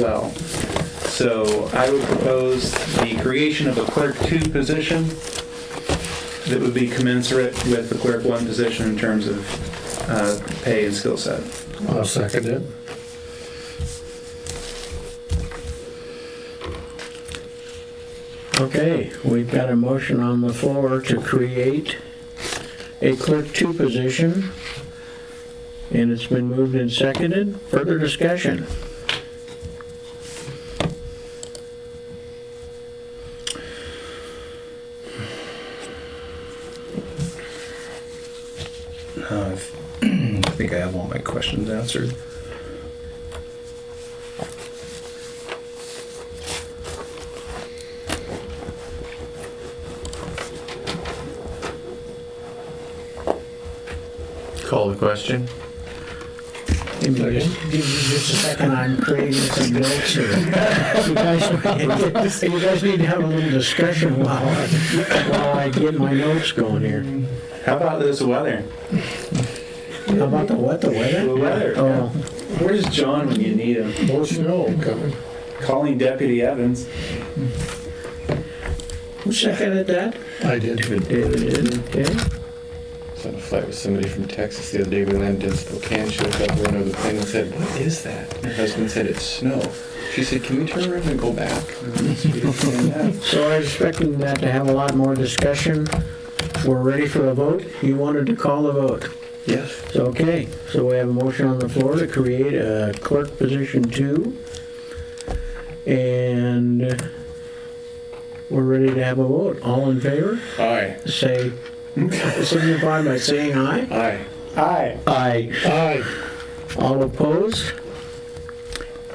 well. So I would propose the creation of a clerk two position that would be commensurate with the clerk one position in terms of uh, pay and skill set. I'll second it. Okay, we've got a motion on the floor to create a clerk two position. And it's been moved and seconded. Further discussion? Uh, I think I have all my questions answered. Call the question. Give me just give me just a second, I'm creating some notes here. You guys, you guys need to have a little discussion while, I- while I get my notes going here. How about this weather? How about the what, the The weather? weather. Oh. Where's John when you need him? More snow coming. Calling Deputy Evans. Who seconded that? I did. David did, okay. I was on a flight with somebody from Texas the other day. We landed in Spokane. She looked out the window of the plane and said, "What is that?" Her husband said, "It's snow." She said, "Can we turn around and go back?" So I'm expecting that to have a lot more discussion. We're ready for a vote. You wanted to call a vote. Yes. So, okay, so we have a motion on the floor to create a clerk position two. And we're ready to have a vote. All in favor, Aye. say, signify by saying aye. Aye. Hi. Aye. Aye. All opposed?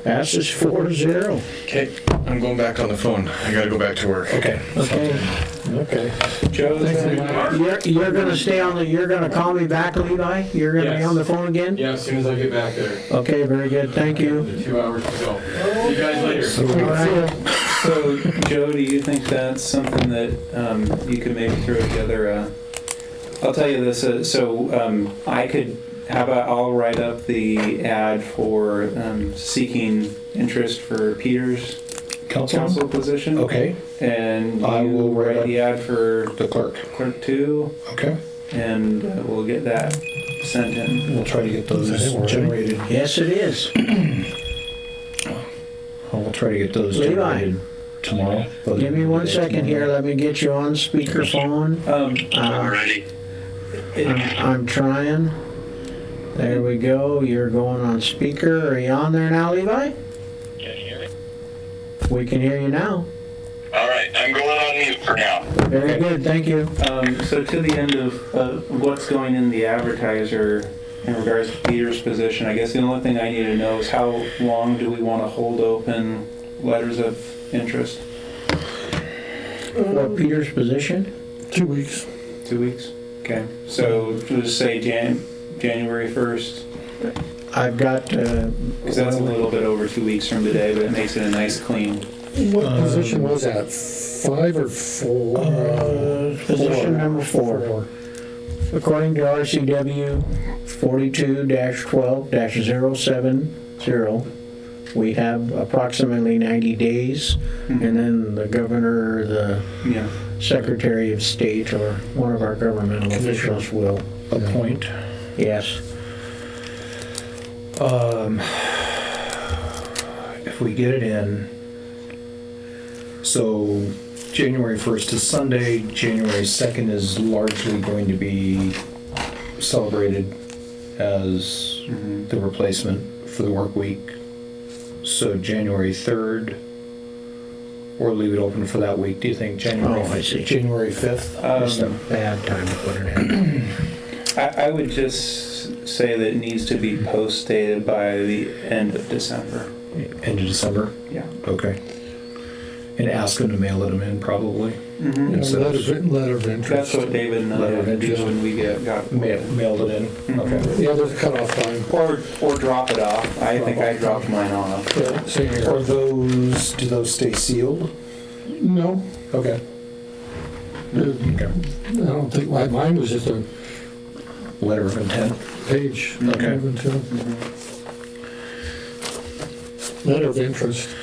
Passes four zero. Okay, I'm going back on the phone. I gotta go back to work. Okay. Okay. Okay. Joe's Thanks, gonna- You're, you're gonna stay on the, you're gonna call me back, Levi? You're gonna be Yes. on the phone again? Yeah, as soon as I get back there, Okay, very good, thank you. two hours to go. See you guys later. All right, So, Joe, do you think that's something that um, you could maybe throw together? Uh, I'll tell you this. Uh, so, um, I could. How about I'll write up the ad for um, seeking interest for Peter's council position, Okay, and Oh. I you will write write up- the ad for the clerk. clerk two, Okay, and uh, we'll get that sent in. we'll try to get those Is that it? generated. yes it is. We'll try to get those Levi. generated tomorrow. Give me one second here, let me get you on speakerphone. Um, Uh, I'm, I'm trying. There we go, you're going on speaker, are you on there now, Levi? Can you hear me? We can hear you now. All right, I'm going on mute for now. Very good, thank you. Um, so to the end of, of what's going in the advertiser in regards to Peter's position, I guess the only thing I need to know is how long do we want to hold open letters of interest? For Peter's position? Two weeks. Two weeks? Okay, so just say Jan, January first, I've got, uh, because that's a little bit over two weeks from today, but it makes it a nice clean. What position was that? Five or four? Uh, position number four. According to RCW 42-12-070, we have approximately 90 days, Hmm. and then the governor, or the Yeah, secretary of state, or one of our governmental officials will, Appoint. yes. Um, if we get it in, so January 1st is Sunday, January 2nd is largely going to be celebrated as Mm-hmm. the replacement for the work week. So January 3rd, or leave it open for that week, do you think January? Oh, I see. January 5th? is the- um, Bad time to put it in. I, I would just say that it needs to be post dated by the end of December. End of December? Yeah. Okay. And ask them to mail it in probably. Mm-hmm. Mhm. Yeah, Letter of- letter of That's interest. what David and I Letter had of to do interest. when we get, got. Mail, mailed it Mm-hmm. in, okay. Yeah, there's a cutoff time. Or, or drop it off. I think I dropped mine off. Yeah, same Are here. those, do those stay sealed? No, Okay. I Okay. don't think, my- mine was just a Letter of intent. page. Okay. Even to- letter of interest